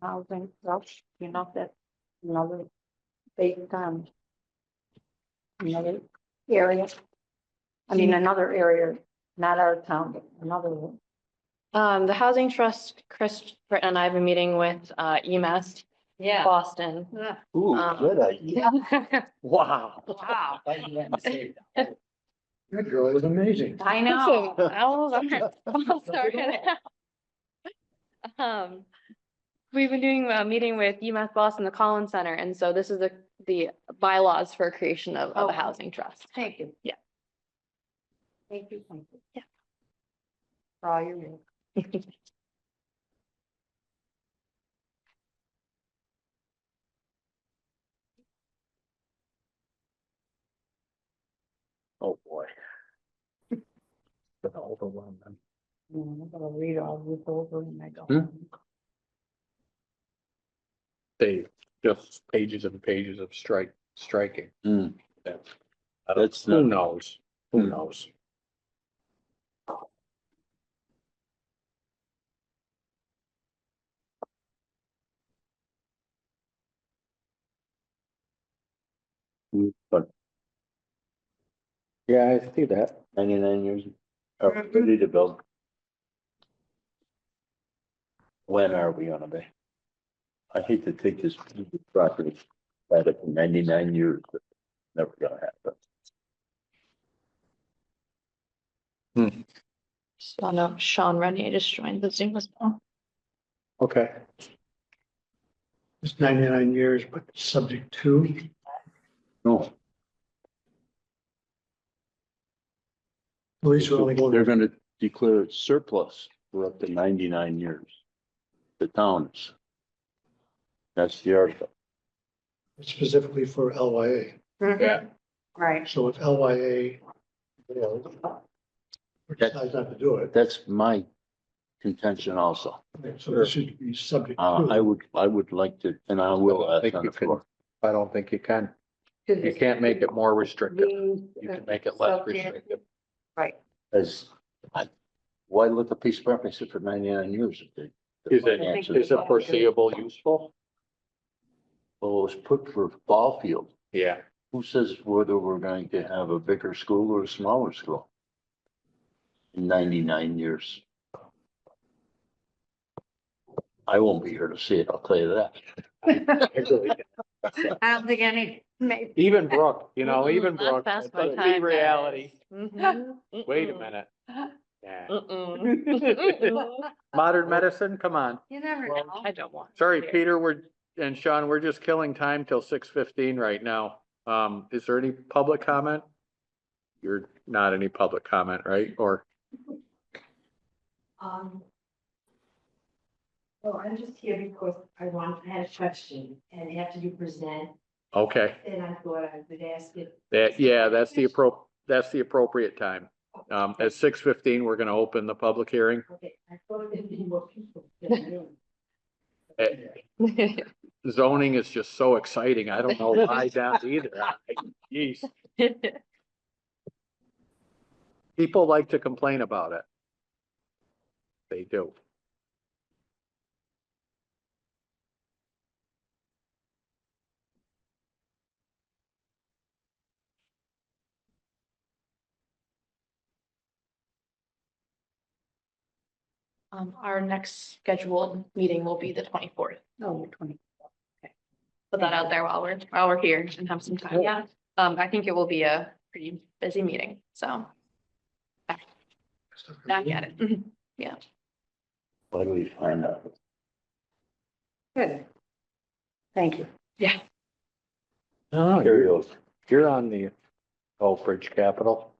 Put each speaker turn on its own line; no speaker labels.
Housing, Welsh, you know, that another big, um, another area. I mean, another area, not our town, but another one.
Um, the Housing Trust, Chris Britton and I have a meeting with uh, EMS
Yeah.
Boston.
Ooh,
Um,
good idea. Wow.
Wow,
That girl is amazing.
I know.
I'll start it. Um, We've been doing a meeting with UMass Boston, the Collins Center, and so this is the, the bylaws for creation of,
Oh,
of
wow.
a housing trust.
Thank you.
Yeah.
Thank you, thank you.
Yeah.
For all your work.
Oh, boy.
Overwhelming.
Mm, I'm gonna read all this over and I go.
Hmm?
home.
they just pages and pages of strike, striking.
Hmm.
That's- I don't-
That's
Who
not-
knows? Who
Hmm.
knows?
But
Yeah, I see that.
ninety-nine years
Mm-hmm.
are ready to build. When are we gonna be? I hate to take this property, but for ninety-nine years, but never gonna happen.
So no, Sean Renier just joined the Zoom as well.
Okay.
It's ninety-nine years, but subject to,
No.
at least we're only
They're
going,
gonna declare it surplus for up to ninety-nine years. The towns. That's the article.
specifically for LYA.
Yeah.
Right,
So if LYA fails, or decides not to do it,
That's my contention also.
so this should be subject
Uh, I
to.
would, I would like to, and I will
I
ask
think
on
you
the
can-
floor.
I don't think you can. You
Because
can't make it more
it
restrictive.
means,
You
uh,
can make it less
subject-
restrictive.
Right,
As, I, why let the piece of property sit for ninety-nine years? if they-
Is it,
I think
is it foreseeable useful?
Well, it was put for ball field.
Yeah.
Who says whether we're going to have a bigger school or a smaller school? In ninety-nine years. I won't be here to see it, I'll tell you that.
I don't think any, maybe.
Even Brooke, you know, even
Mm-mm, I've
Brooke,
passed my
let's be
time, Mm-hmm.
reality. Wait a
Mm-mm.
minute. Yeah.
Mm-mm.
Modern medicine, come on.
You never
Well,
know.
I don't want. to
Sorry,
hear.
Peter, we're, and Sean, we're just killing time till six fifteen right now. Um, is there any public comment? You're not any public comment, right? Or,
Um. Well, I'm just here because I want, I had a question, and after you present,
okay,
then I thought I would ask it.
that, yeah, that's the appro, that's the appropriate time. Um, at six fifteen, we're gonna open the public hearing.
Okay, I thought there'd be more people. than you.
Eh, Zoning is just so exciting. I don't know why down either. I- Jeez, people like to complain about it. They do.
Um, our next scheduled meeting will be the twenty-fourth.
No, twenty.
Put that out there while we're, while we're here and have some time. Yeah. Um, I think it will be a pretty busy meeting, so back at it. Mhm.
Why do we find out?
Good. Thank you.
Yeah.
No,
Carry over.
you're on the Oak Bridge Capital.